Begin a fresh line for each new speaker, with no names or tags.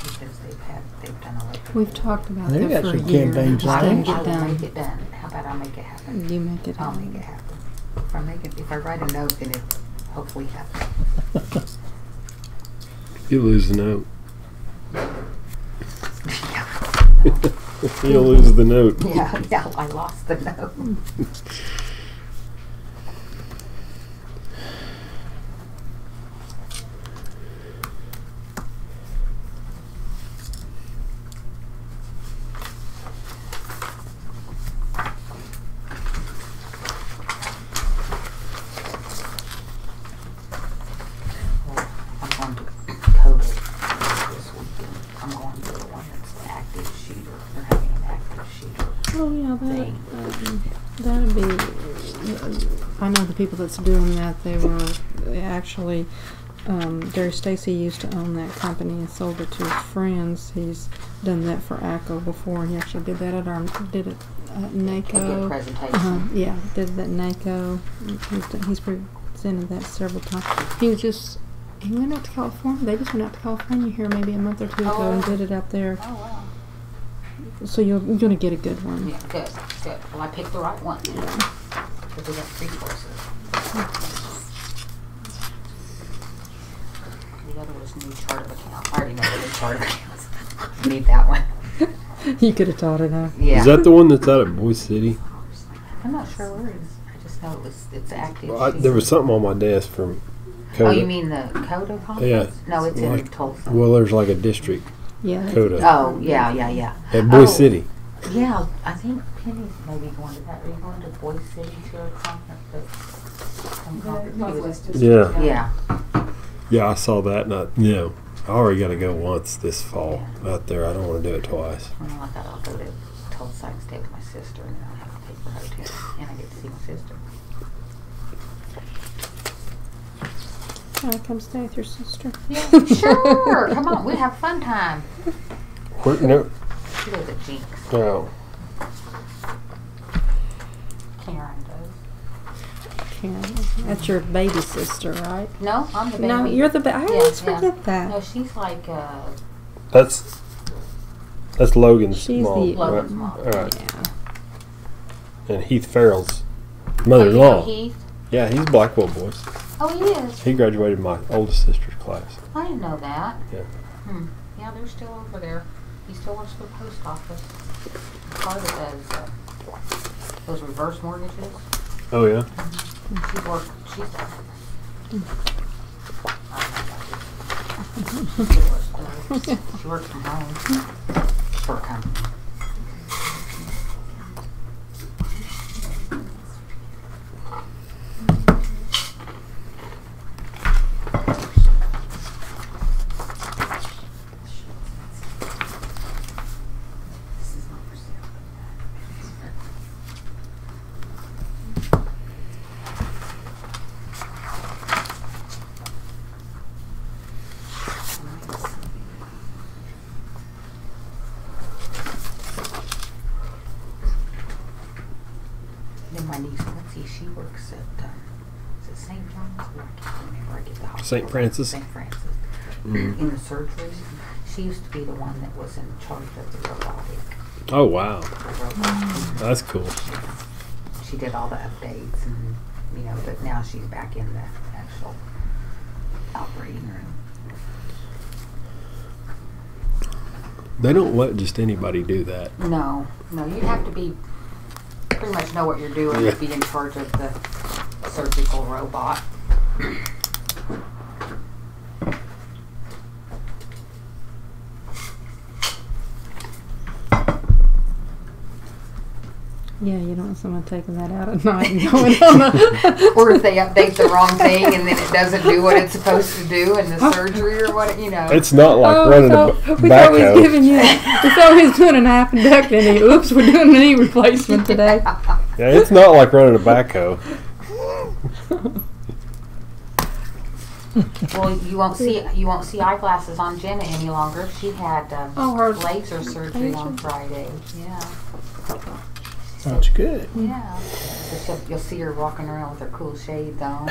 initiatives they've had, they've done all over.
We've talked about
They've
that
got
for a
some
year.
campaigns
Just
like
didn't
that.
I
get
will make
done.
it done. How about I'll make it happen?
You make it
I'll
happen.
make it happen. If I make it, if I write a note, then it hopefully happens.
You lose the note. you
Mhm.
lose the note.
Yeah, yeah, I lost the note. Well, I'm going to COVID this weekend. I'm going to the one that's the active shooter. They're having an active shooter.
Oh yeah, that
Thing.
um, that'd be. uh, I know the people that's doing that. They were they actually. Um, Gary Stacy used to own that company and sold it to his friends. He's done that for ACO before. He actually did that at our did it at
They did a
NACO.
presentation.
Uh-huh, yeah, did that NACO. He's, done- he's presented that several times. He was just he went out to California. They just went out to California here maybe a month or two ago and
Oh.
did it out there.
Oh, wow.
So you're, you're gonna get a good one.
Yeah, good, good. Well, I picked the right one.
Yeah.
Because we got three courses. The other was new chart of account. I already know the new chart of accounts. Need that one.
you could have taught it out.
Yeah.
Is that the one that's out at Boise City?
I'm not sure where it is. I just know it was, it's active.
Well, I, there was something on my desk from.
Oh,
Coda.
you mean the Coda conference? No, it's in
Like-
Tulsa.
Well, there's like a district
Yeah. that's-
Coda
Oh, yeah, yeah, yeah.
at Boise
Oh.
City.
Yeah, I think Penny's maybe going to that. Are you going to Boise City to a conference? But some conference she was-
Yeah,
Yeah,
yeah, I saw that, and I, you know, I already got to go once this fall out there. I don't want to do it twice.
well, I thought I'll go to Tulsa. I can stay with my sister and then I'll have to pay for a hotel. And I get to see my sister.
Can I come stay with your sister?
Yeah, sure. Come on, we have fun time.
Where, no,
She does a jinx.
no.
Karen does.
Can. That's your baby sister, right?
No, I'm the baby.
No, you're the baby. I
Yeah,
always
yeah.
forget that.
No, she's like uh,
That's that's Logan's
She's
mom,
the-
Logan's
right?
mom.
All right,
Yeah.
and Heath Farrell's
Oh, you know
mother-in-law.
Heath?
yeah, he's Blackwell boys.
Oh, he is.
He graduated my oldest sister's class.
I didn't know that.
Yeah.
Hmm. Yeah, they're still over there. He still works for the post office. Part of those, uh, those reverse mortgages.
Oh yeah.
She worked. She's done. Mm-hmm. She works from home. For a company. This is not for sale. Then my niece Lindsay, she works at, um, is it St. John's? Or I can't remember. I get the hospital.
St. Francis.
St. Francis.
Mm-hmm.
In the surgery, she used to be the one that was in charge of the robotic.
Oh wow,
The robot.
that's cool.
She did all the updates and, you know, but now she's back in the actual operating room.
They don't let just anybody do that.
No, no, you have to be, pretty much know what you're doing
Yeah.
to be in charge of the surgical robot.
Yeah, you don't want someone taking that out at night and going on a.
Or if they update the wrong thing and then it doesn't do what it's supposed to do in the surgery or what, you know.
It's not like
Oh,
running
so
a b-
we thought we was
backhoe.
giving you. We thought we was doing an appendectomy. and oops, we're doing a knee replacement today.
Yeah, it's not like running a backhoe.
Well, you won't see, you won't see eyeglasses on Jenna any longer. She had, um,
Oh, her
laser surgery on
Laser.
Friday, yeah.
That's good.
Hmm.
Yeah. So she'll, you'll see her walking around with her cool shades on.